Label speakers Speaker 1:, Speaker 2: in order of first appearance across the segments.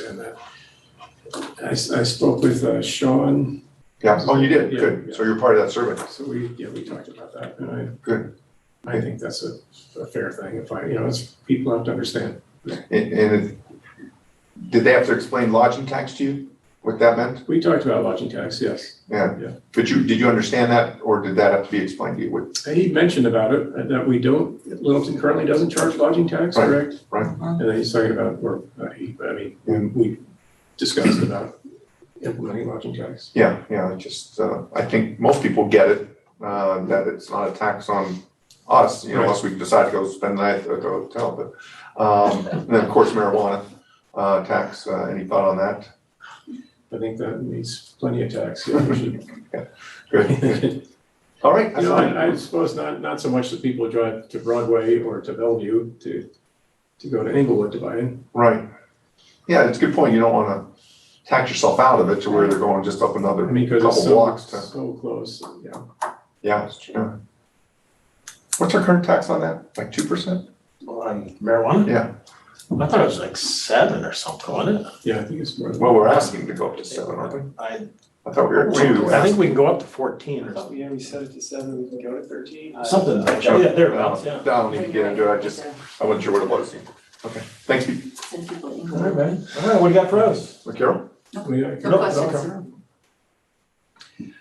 Speaker 1: understand that. I, s- I spoke with uh, Sean,
Speaker 2: Yeah, oh, you did,
Speaker 1: Yeah,
Speaker 2: good,
Speaker 1: yeah.
Speaker 2: so you're part of that survey,
Speaker 1: so we, yeah, we talked about that, and
Speaker 2: good.
Speaker 1: I, I think that's a, a fair thing, if I, you know, it's, people have to understand.
Speaker 2: And, and it- did they have to explain lodging tax to you, what that meant?
Speaker 1: We talked about lodging tax, yes. Yeah.
Speaker 2: Yeah, but you, did you understand that, or did that have to be explained to you? What-
Speaker 1: And He mentioned about it, uh, that we don't, Littleton currently doesn't charge lodging tax,
Speaker 2: Right,
Speaker 1: correct?
Speaker 2: right.
Speaker 1: And then he's talking about, or, not he, but I mean,
Speaker 2: Yeah.
Speaker 1: we- we discussed about implementing lodging tax.
Speaker 2: Yeah, yeah, I just, uh, I think most people get it, uh, that it's not a tax on us, you know,
Speaker 1: Right.
Speaker 2: unless we decide to go spend the night at the hotel, but, um, and then, of course, marijuana, uh, tax, uh, any thought on that?
Speaker 1: I think that needs plenty of tax, yeah, we should-
Speaker 2: Good, all right,
Speaker 1: You
Speaker 2: that's
Speaker 1: know,
Speaker 2: fine.
Speaker 1: I, I suppose not, not so much that people drive to Broadway or to Bellevue to, to go to Inglewood to buy it.
Speaker 2: Right. Yeah, it's a good point. You don't want to tax yourself out of it to where they're going just up
Speaker 1: I
Speaker 2: another
Speaker 1: mean, because it's
Speaker 2: couple
Speaker 1: so,
Speaker 2: blocks to,
Speaker 1: so close, yeah.
Speaker 2: yeah. yeah. What's our current tax on that? Like two percent?
Speaker 3: On marijuana?
Speaker 2: Yeah.
Speaker 3: I thought it was like seven or something, wasn't it?
Speaker 1: Yeah, I think it's more.
Speaker 2: Well, we're asking to go up to seven, aren't we?
Speaker 3: I,
Speaker 2: I thought we were at two.
Speaker 3: I think we can go up to fourteen or something,
Speaker 4: Yeah, we set it to seven, we can go to thirteen.
Speaker 3: something like that, yeah, thereabouts, yeah.
Speaker 2: I don't need to get into it. I just, I wasn't sure what it was. Okay, thanks, Pete.
Speaker 5: Send people
Speaker 3: All
Speaker 5: in.
Speaker 3: right, man, all right, what do you got for us?
Speaker 2: Carol?
Speaker 1: We- I-
Speaker 5: No questions.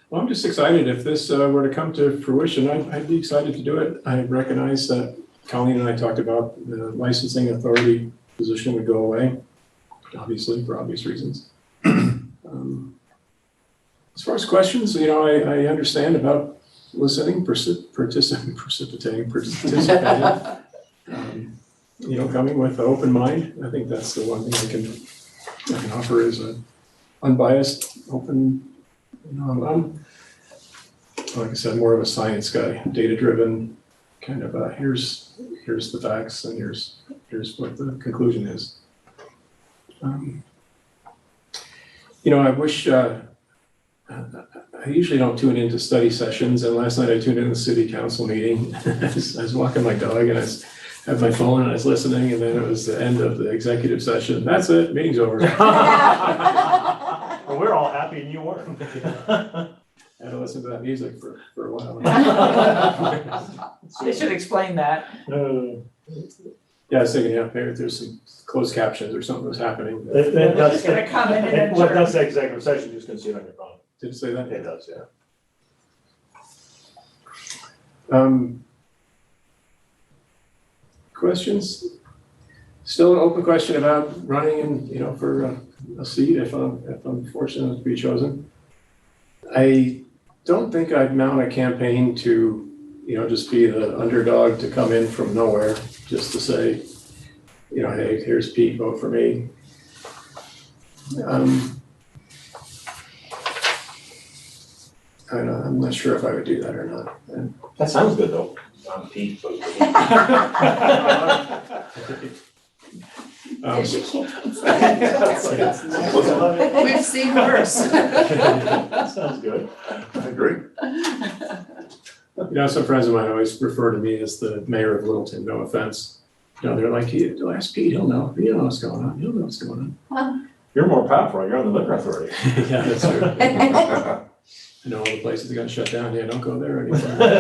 Speaker 1: Well, I'm just excited. If this uh, were to come to fruition, I'd, I'd be excited to do it. I recognize that Colleen and I talked about the licensing authority position would go away, obviously, for obvious reasons. Um, As far as questions, you know, I, I understand about listening, perci- partici- precipitating, participating. um, You know, coming with an open mind. I think that's the one thing I can, I can offer is a unbiased, open you know, I'm, I'm, like I said, more of a science guy, data driven, kind of a here's, here's the facts and here's, here's what the conclusion is. Um, You know, I wish, uh, I I usually don't tune into study sessions and last night I tuned in to the city council meeting. I was I was walking my dog and I was- had my phone and I was listening and then it was the end of the executive session. That's it, meeting's over.
Speaker 3: Well, we're all happy and you weren't.
Speaker 1: I had to listen to that music for, for a while.
Speaker 6: They should explain that.
Speaker 3: Uh,
Speaker 1: Yeah, I was thinking, yeah, maybe there's some closed captions or something was happening. Did
Speaker 3: It, it does,
Speaker 6: Just gonna come in and
Speaker 3: it, what
Speaker 6: adjourn.
Speaker 3: does say executive session, you just gonna see it on your phone,
Speaker 1: it say that?
Speaker 3: it does, yeah.
Speaker 1: Um, questions? Still an open question about running in, you know, for uh, a seat if I'm, if I'm fortunate to be chosen. I don't think I'd mount a campaign to, you know, just be the underdog to come in from nowhere, just to say, you know, hey, here's Pete, vote for me. Um, I don't, I'm not sure if I would do that or not. And
Speaker 3: That sounds good though. I'm Pete. vote for Pete.
Speaker 1: Um,
Speaker 5: We've seen worse.
Speaker 3: Sounds good.
Speaker 2: I agree.
Speaker 1: You know, some friends of mine always refer to me as the mayor of Littleton, no offense. You know, they're like, he, ask Pete, he'll know, he'll know what's going on, he'll know what's going on.
Speaker 3: You're more powerful, you're on the liquor authority.
Speaker 1: Yeah, that's true. I
Speaker 2: Yeah,
Speaker 1: know all the places that got shut down, yeah, don't go there anymore.
Speaker 3: Well,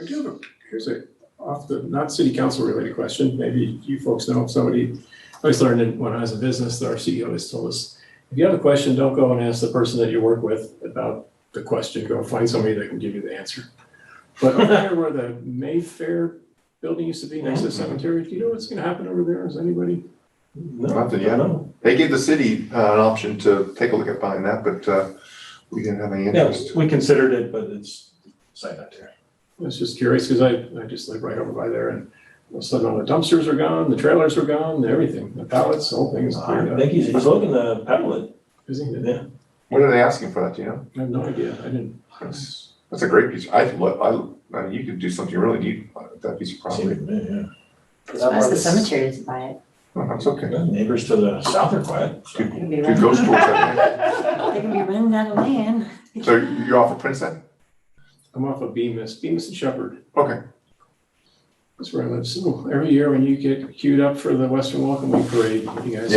Speaker 1: I do have a, here's a, off the, not city council related question, maybe you folks know, if somebody, I always learned in- when I was in business, our CEO always told us, if you have a question, don't go and ask the person that you work with about the question, go find somebody that can give you the answer. But over there where the Mayfair building used to be next to the cemetery, do you know what's gonna happen over there, is anybody?
Speaker 2: Nothing yet. They gave the city uh, an option to take a look at buying that, but uh, we didn't have any
Speaker 3: Yeah,
Speaker 2: interest.
Speaker 3: we considered it, but it's, site not there.
Speaker 1: I was just curious, cause I, I just live right over by there and all of a sudden all the dumpsters are gone, the trailers are gone, everything, the pallets, the whole thing is cleared
Speaker 3: I
Speaker 1: up.
Speaker 3: think he's, he's looking to pedal it.
Speaker 1: Isn't it?
Speaker 3: Uh, Yeah.
Speaker 2: What are they asking for that, do you know?
Speaker 1: I have no idea, I didn't
Speaker 2: That's that's a great piece. I love, I, I mean, you could do something really neat with that piece of property.
Speaker 5: Ask the cemetery to buy it.
Speaker 2: No, That's Uh-huh, okay.
Speaker 3: Neighbors to the south are quiet. so.
Speaker 2: Two,
Speaker 5: They can be
Speaker 2: two
Speaker 5: running,
Speaker 2: ghost tours that way.
Speaker 5: they can be running out of land.
Speaker 2: So you're off of Prince then?
Speaker 1: I'm off of Bemis, Bemis and Shepherd.
Speaker 2: Okay.
Speaker 1: That's where I live. So every year when you get queued up for the Western Welcome Week parade, you guys